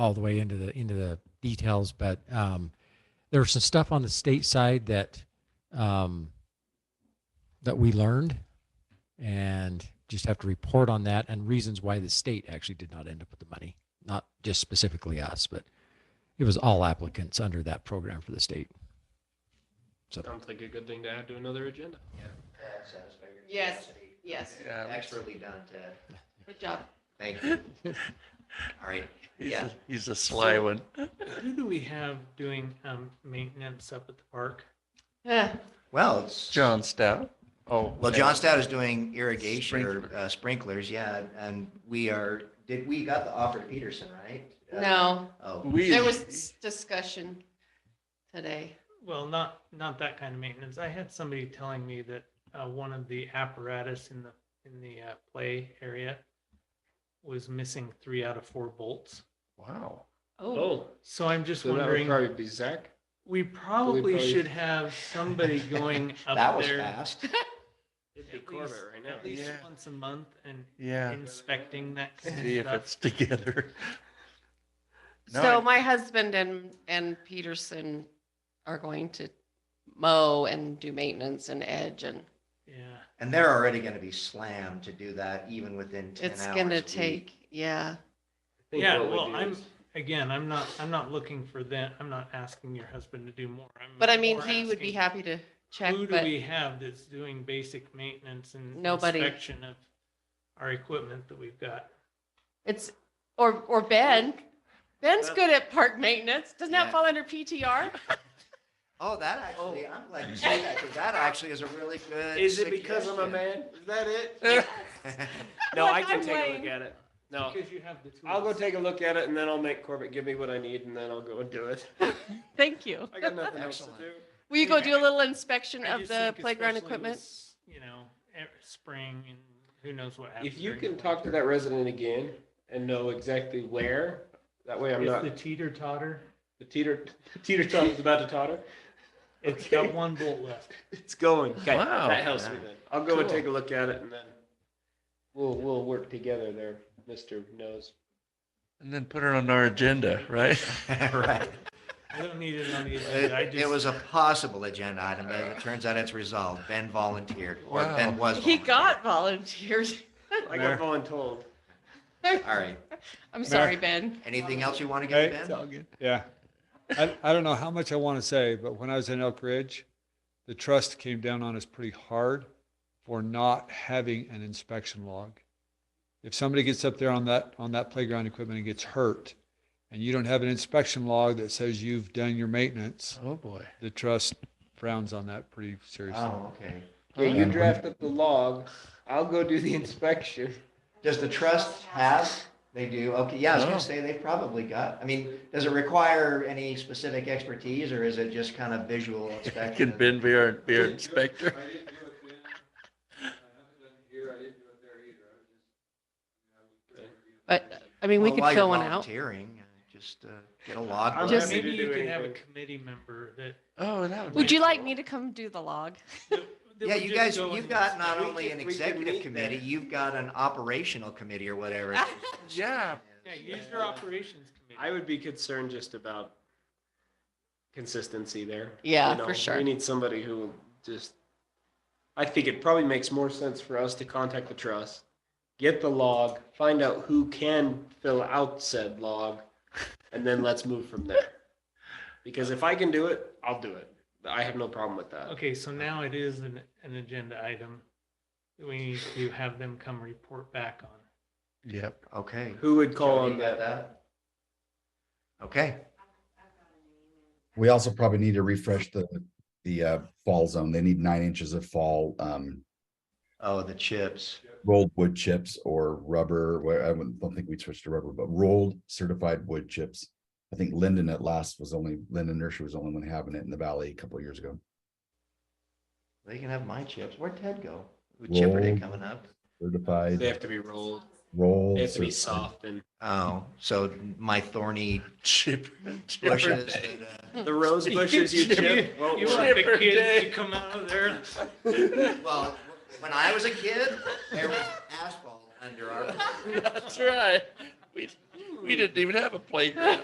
all the way into the into the details, but um, there was some stuff on the state side that um, that we learned, and just have to report on that and reasons why the state actually did not end up with the money, not just specifically us, but it was all applicants under that program for the state. Sounds like a good thing to add to another agenda. That satisfies your Yes. curiosity. Yes, Yeah, it makes- Expertly done, Ted. good job. Thank you. All right. he's, Yeah. a, he's a sly So- one. Who do we have doing um, maintenance up at the park? Eh, Well, it's. John Stout. Oh, Well, John Stout is doing irrigation or Sprinkler. uh, sprinklers, yeah, and we are, did, we got the offer to Peterson, right? Uh, No, Oh, We, there was s- discussion today. Well, not, not that kind of maintenance. I had somebody telling me that uh, one of the apparatus in the, in the uh, play area was missing three out of four bolts. wow. Oh, So I'm just So that would wondering, probably be Zach. we probably probably- should have somebody going that up was there. fast. It'd be Corvette right now. At least Yeah. once a month and Yeah. inspecting that See kind if of stuff. it's together. No, so I- my husband and, and Peterson are going to mow and do maintenance and edge and Yeah. And they're already gonna be slammed to do that even within ten hours. it's gonna a week. take, yeah. Yeah, well, I'm, again, I'm not, I'm not looking for that. I'm not asking your husband to do more. I'm But I mean, more he would be happy asking, to check, Who do but we have that's doing basic maintenance and Nobody. inspection of our equipment that we've got? it's, or, or Ben. Ben's good at park maintenance. Doesn't that Yeah. fall under PTR? Oh, that actually, I'm glad you said that, because that actually is a really good. Is it because I'm a suggestion. man? Is that it? No, No, Like, I I can can I'm take a take lame. a look look at it. No, Because you have the tools. I'll go take a look at it and then I'll make Corbett give me what I need and then I'll go and do it. Thank you. I got nothing else to Excellent. do. Will you go do a little inspection I of just the think playground especially equipment? with, You know, ev- spring and who knows what happens. If you during can the talk to winter. that resident again and know exactly where, that way I'm It's not, the teeter totter. the teeter, teeter totter's about to totter. It's Okay. got one bolt left. It's going. Okay, Wow. That helps me then. I'll go and Cool. take a look at it and then we'll, we'll work together there, Mr. Knows. and then put it on our agenda, right? Right. I don't need it on the agenda. I It, it just, was a possible agenda item, but it turns out it's resolved. Ben volunteered, or Wow. Ben was. He volunteered. got volunteered. I Mayor. got voluntold. All right. I'm sorry, Ben. Anything else you want to get, Hey, Ben? it's all good. Yeah. I, I don't know how much I want to say, but when I was in Elk Ridge, the trust came down on us pretty hard for not having an inspection log. If somebody gets up there on that, on that playground equipment and gets hurt, and you don't have an inspection log that says you've done your maintenance, Oh, boy. the trust frowns on that pretty seriously. Oh, okay. Yeah, you draft up the log. I'll go do the inspection. Does the trust have, they do, okay, yeah, I was No. gonna say, they probably got, I mean, does it require any specific expertise, or is it just kind of visual inspection? Can Ben be our, be our inspector? But, I mean, we Well, could while you're fill one out. Volunteering, uh, just uh, get a log. I'm Just- happy maybe to you do could have a anything. committee member that. Oh, that would be. Would you like me to come do the log? that Yeah, would you just guys, go you've in got this- not we only could- an we could executive meet committee, there. you've got an operational committee or whatever. it is. Yeah. Yeah, use uh, your operations I committee. would be concerned just about consistency there. Yeah, You know, for sure. We need somebody who will just, I think it probably makes more sense for us to contact the trust, get the log, find out who can fill out said log, and then let's move from there. Because if I can do it, I'll do it. I have no problem with that. Okay, so now it is an, an agenda item that we need to have them come report back on. Yep. Okay. Who would call Jody, on you got that? Okay, We also probably need to refresh the, the uh, fall zone. They need nine inches of fall, um, oh, the chips. rolled wood chips or rubber, where I wouldn't- don't think we switched to rubber, but rolled certified wood chips. I think Linden at last was only, Linden Nursery was the only one having it in the valley a couple of years ago. They can have my chips. Where'd Ted go? Chipper Day Roll. coming up. They Certified have to be rolled. roll. They have to be certified. soft and Oh, so my thorny Chip. bushes. that, uh, Hmm. the rose bushes you chip. won't You work. want the Chipper kids day. to come out of there? uh, Well, when I was a kid, there was asphalt under our. That's right. We, We didn't even have a playground.